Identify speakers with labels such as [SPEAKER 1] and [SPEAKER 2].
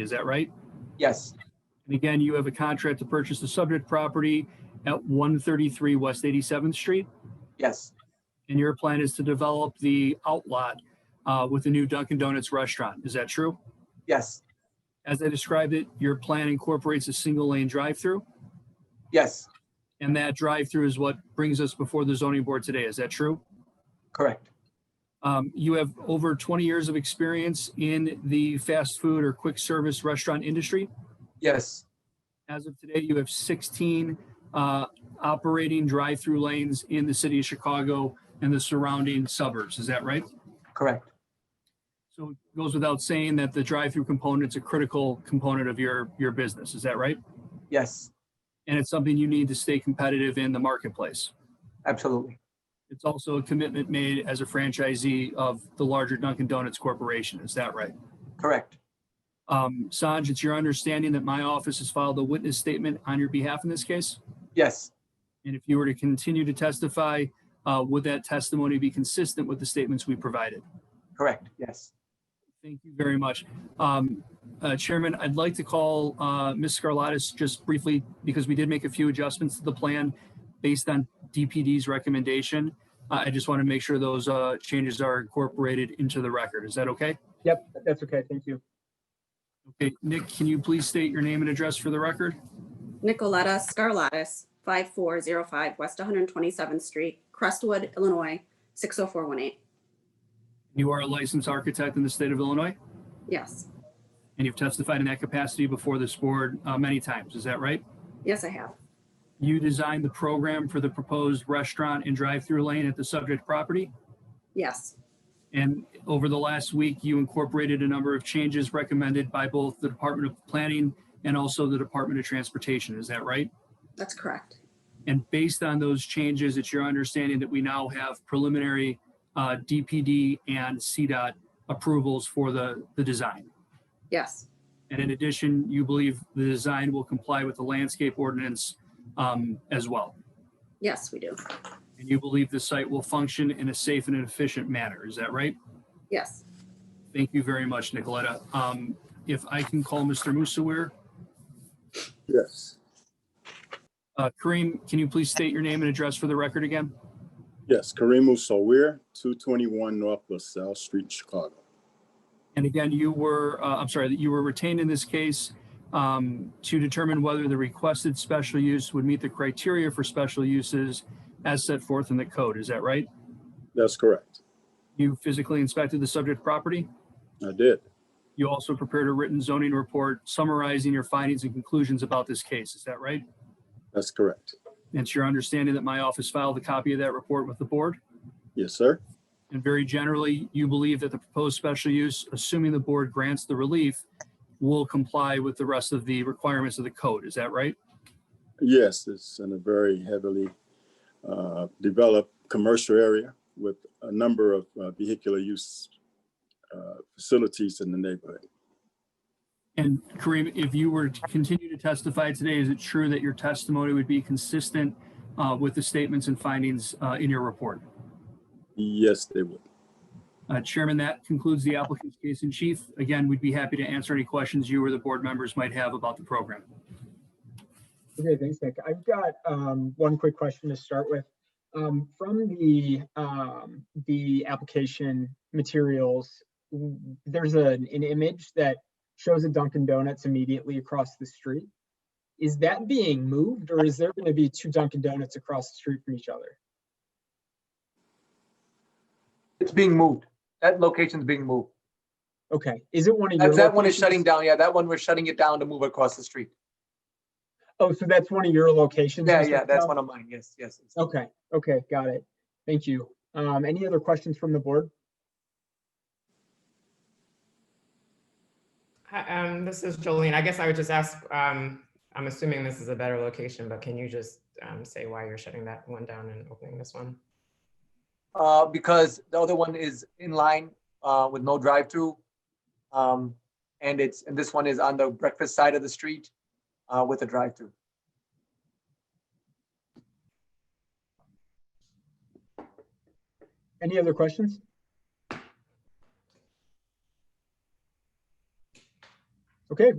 [SPEAKER 1] Is that right?
[SPEAKER 2] Yes,
[SPEAKER 1] And again, you have a contract to purchase the subject property at 133 West 87th Street,
[SPEAKER 2] yes,
[SPEAKER 1] and your plan is to develop the outlot uh, with a new Dunkin' Donuts restaurant. Is that true?
[SPEAKER 2] yes,
[SPEAKER 1] As I described it, your plan incorporates a single-lane drive-through,
[SPEAKER 2] yes,
[SPEAKER 1] and that drive-through is what brings us before the zoning board today. Is that true?
[SPEAKER 2] correct.
[SPEAKER 1] Um, You have over 20 years of experience in the fast food or quick service restaurant industry.
[SPEAKER 2] Yes,
[SPEAKER 1] As of today, you have 16 uh, operating drive-through lanes in the city of Chicago and the surrounding suburbs. Is that right?
[SPEAKER 2] correct.
[SPEAKER 1] So it goes without saying that the drive-through component's a critical component of your, your business. Is that right?
[SPEAKER 2] Yes,
[SPEAKER 1] And it's something you need to stay competitive in the marketplace.
[SPEAKER 2] absolutely.
[SPEAKER 1] It's also a commitment made as a franchisee of the larger Dunkin' Donuts Corporation. Is that right?
[SPEAKER 2] Correct.
[SPEAKER 1] Um, Sanj, it's your understanding that my office has filed a witness statement on your behalf in this case?
[SPEAKER 2] Yes,
[SPEAKER 1] And if you were to continue to testify, uh, would that testimony be consistent with the statements we provided?
[SPEAKER 2] correct. Yes,
[SPEAKER 1] Thank you very much. Um, uh, Chairman, I'd like to call uh, Ms. Scarlatus just briefly because we did make a few adjustments to the plan based on DPD's recommendation. Uh, I just want to make sure those uh, changes are incorporated into the record. Is that okay?
[SPEAKER 3] Yep, that's okay. Thank you.
[SPEAKER 1] Okay, Nick, can you please state your name and address for the record?
[SPEAKER 4] Nicoletta Scarlatus, 5405 West 127th Street, Crestwood, Illinois, 60418.
[SPEAKER 1] You are a licensed architect in the state of Illinois,
[SPEAKER 4] Yes,
[SPEAKER 1] and you've testified in that capacity before this board uh, many times. Is that right?
[SPEAKER 4] yes, I have.
[SPEAKER 1] You designed the program for the proposed restaurant and drive-through lane at the subject property,
[SPEAKER 4] Yes,
[SPEAKER 1] and over the last week, you incorporated a number of changes recommended by both the Department of Planning and also the Department of Transportation. Is that right?
[SPEAKER 4] that's correct.
[SPEAKER 1] And based on those changes, it's your understanding that we now have preliminary uh, DPD and CDOT approvals for the, the design.
[SPEAKER 4] Yes,
[SPEAKER 1] And in addition, you believe the design will comply with the landscape ordinance um, as well.
[SPEAKER 4] yes, we do.
[SPEAKER 1] And you believe the site will function in a safe and efficient manner. Is that right?
[SPEAKER 4] Yes,
[SPEAKER 1] Thank you very much, Nicoletta. Um, If I can call Mr. Musawir.
[SPEAKER 5] Yes,
[SPEAKER 1] Uh, Kareem, can you please state your name and address for the record again?
[SPEAKER 5] yes, Kareem Sawir, two twenty-one North LaSalle Street, Chicago.
[SPEAKER 1] And again, you were, uh, I'm sorry, that you were retained in this case um, to determine whether the requested special use would meet the criteria for special uses as set forth in the code. Is that right?
[SPEAKER 5] That's correct.
[SPEAKER 1] You physically inspected the subject property?
[SPEAKER 5] I did.
[SPEAKER 1] You also prepared a written zoning report summarizing your findings and conclusions about this case. Is that right?
[SPEAKER 5] That's correct.
[SPEAKER 1] And It's your understanding that my office filed a copy of that report with the board?
[SPEAKER 5] Yes, sir.
[SPEAKER 1] And very generally, you believe that the proposed special use, assuming the board grants the relief, will comply with the rest of the requirements of the code. Is that right?
[SPEAKER 5] Yes, it's in a very heavily uh, developed commercial area with a number of uh, vehicular use uh, facilities in the neighborhood.
[SPEAKER 1] And Kareem, if you were to continue to testify today, is it true that your testimony would be consistent uh, with the statements and findings uh, in your report?
[SPEAKER 5] Yes, they would.
[SPEAKER 1] Uh, Chairman, that concludes the applicant's case in chief. Again, we'd be happy to answer any questions you or the board members might have about the program.
[SPEAKER 3] Okay, thanks, Nick. I've got um, one quick question to start with. Um, From the, um, the application materials, w- there's a- an image that shows a Dunkin' Donuts immediately across the street. Is that being moved or is there going to be two Dunkin' Donuts across the street from each other?
[SPEAKER 2] It's being moved. That location's being moved.
[SPEAKER 3] Okay, is it one of your?
[SPEAKER 2] That, that one is
[SPEAKER 3] locations?
[SPEAKER 2] shutting down. Yeah, that one, we're shutting it down to move across the street.
[SPEAKER 3] Oh, so that's one of your locations?
[SPEAKER 2] Yeah,
[SPEAKER 3] Mr.
[SPEAKER 2] yeah, that's
[SPEAKER 3] Patel?
[SPEAKER 2] one of mine. Yes, yes. yes.
[SPEAKER 3] Okay, okay, got it. Thank you. Um, any other questions from the board?
[SPEAKER 6] Hi, um, this is Jolene. I guess I would just ask, um, I'm assuming this is a better location, but can you just, um, say why you're shutting that one down and opening this one?
[SPEAKER 2] Uh, because the other one is in line, uh, with no drive-through. Um, and it's, and this one is on the breakfast side of the street, uh, with a drive-through.
[SPEAKER 3] Any other questions? Okay,